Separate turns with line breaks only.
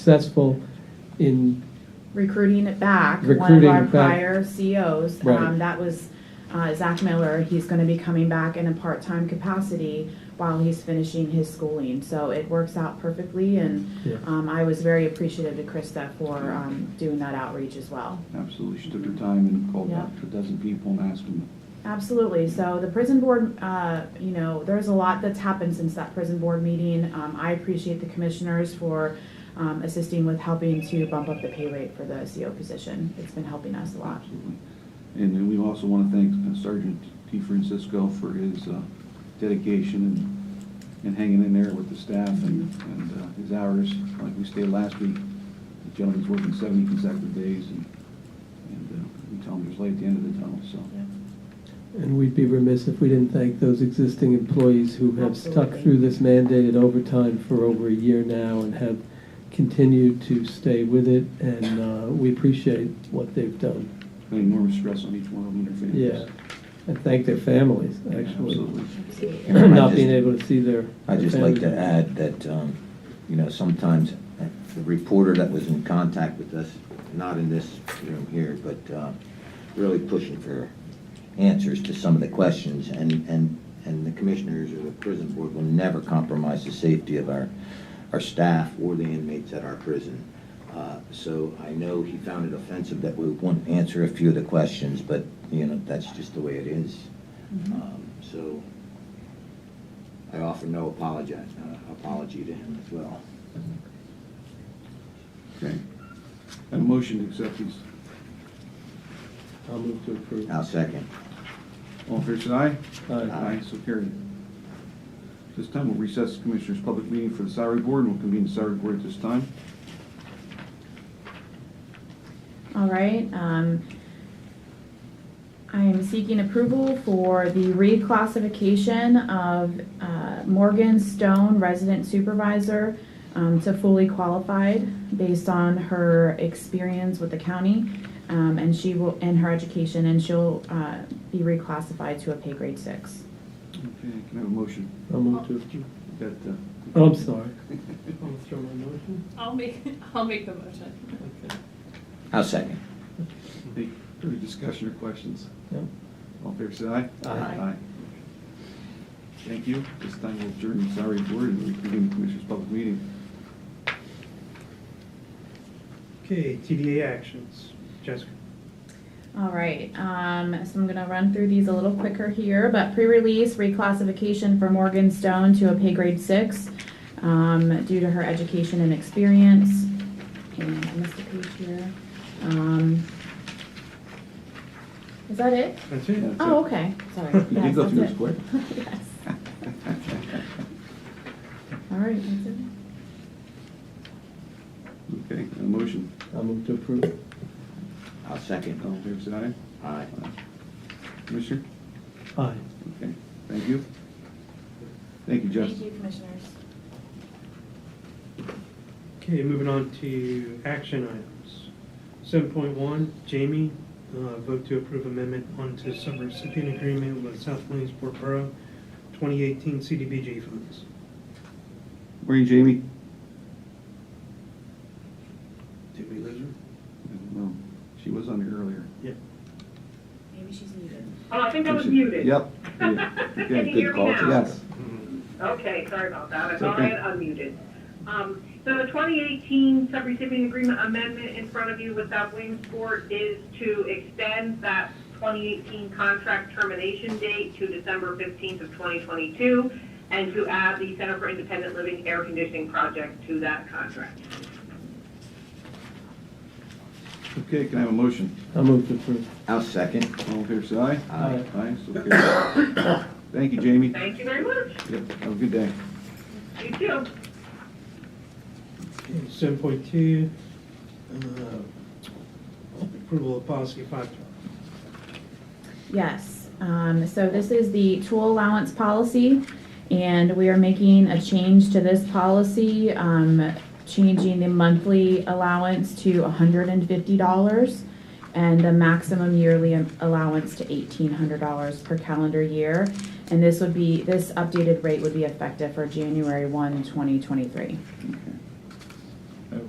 successful in,
recruiting it back, one of
Recruiting
our
it back.
prior COs.
Right.
Um, that was, uh, Zach Miller, he's gonna be coming back in a part-time capacity while he's finishing his schooling, so it works out perfectly, and,
Yeah.
um, I was very appreciative to Krista for, um, doing that outreach as well.
Absolutely, she took her time and called back to a dozen people and asked them.
Absolutely. So the prison board, uh, you know, there's a lot that's happened since that prison board meeting. Um, I appreciate the commissioners for um, assisting with helping to bump up the pay rate for the CO position. It's been helping us a lot.
Absolutely. And then we also want to thank uh, Sergeant T. Francisco for his uh, dedication and, and hanging in there with the staff and, and uh, his hours. Like we stated last week, the gentleman's working seventy consecutive days and, and uh, we tell him there's light at the end of the tunnel, so.
and we'd be remiss if we didn't thank those existing employees who have stuck
Absolutely.
through this mandated overtime for over a year now and have continued to stay with it, and uh, we appreciate what they've done.
Putting enormous stress on each one of them and their
Yeah,
families.
and thank their families, actually,
Absolutely.
Absolutely.
not
I
being
just-
able to see their.
I'd just like to
families.
add that, um, you know, sometimes the reporter that was in contact with us, not in this room here, but uh, really pushing for answers to some of the questions, and, and, and the commissioners or the prison board will never compromise the safety of our, our staff or the inmates at our prison. Uh, So I know he found it offensive that we wouldn't answer a few of the questions, but, you know, that's just the way it is. Um, So I offer no apologize, uh, apology to him as well.
Okay. And a motion to accept these.
I'll move to approve.
I'll second.
All fair side?
Aye.
Aye, so carried. This time, we'll recess the Commissioners' public meeting for the salary board, and we'll convene the salary board at this time.
All right, um, I am seeking approval for the reclassification of, uh, Morgan Stone, resident supervisor, um, to fully qualified based on her experience with the county, um, and she will, and her education, and she'll, uh, be reclassified to a pay grade six.
Okay, can I have a motion?
I'll move to approve.
We've Got, uh,
Oh, I'm sorry.
I'll make, I'll make the motion.
I'll second.
any further discussion or questions?
No.
All fair side?
Aye.
Aye. Thank you. This time, we'll adjourn the salary board and reconvene the Commissioners' public meeting.
Okay, TDA actions. Jessica?
All right, um, so I'm gonna run through these a little quicker here, but pre-release reclassification for Morgan Stone to a pay grade six, um, due to her education and experience. And I missed a page here. Um, is that it?
That's it.
That's
Oh,
it.
okay, sorry.
You did
Yes,
go through
that's
this quick.
it. Yes. All right, that's it.
Okay, a motion.
I'll move to approve.
I'll second.
All fair side?
Aye.
Aye. Commissioner?
Aye.
Okay, thank you. Thank you, Justin.
Thank you, commissioners.
Okay, moving on to action items. Seven point one, Jamie, uh, vote to approve amendment onto subrecipient agreement with South Williamsport Borough, twenty eighteen CDBG funds.
Morning, Jamie.
Did we lose her?
I don't know. She was on here earlier.
Maybe she's muted.
Oh, I think I was muted.
Yep.
Can you
Okay,
hear
good
me
call.
now?
Yes.
Okay, sorry about that. I
It's
thought
okay.
I had unmuted. Um, So the 2018 subrecipient agreement amendment in front of you with South Williamsport is to extend that 2018 contract termination date to December 15th of 2022 and to add the Center for Independent Living Air Conditioning Project to that contract.
Okay, can I have a motion?
I'll move to approve.
I'll second.
All in favor, say aye.
Aye.
Aye, so carried. Thank you, Jamie.
Thank you very much.
Yep, have a good day.
You too.
Seven point two, uh, approval of policy five twelve.
Yes, um, so this is the tool allowance policy, and we are making a change to this policy, um, changing the monthly allowance to hundred and fifty dollars and the maximum yearly am- allowance to eighteen hundred dollars per calendar year. And this would be, this updated rate would be effective for January one, twenty twenty-three.
Okay.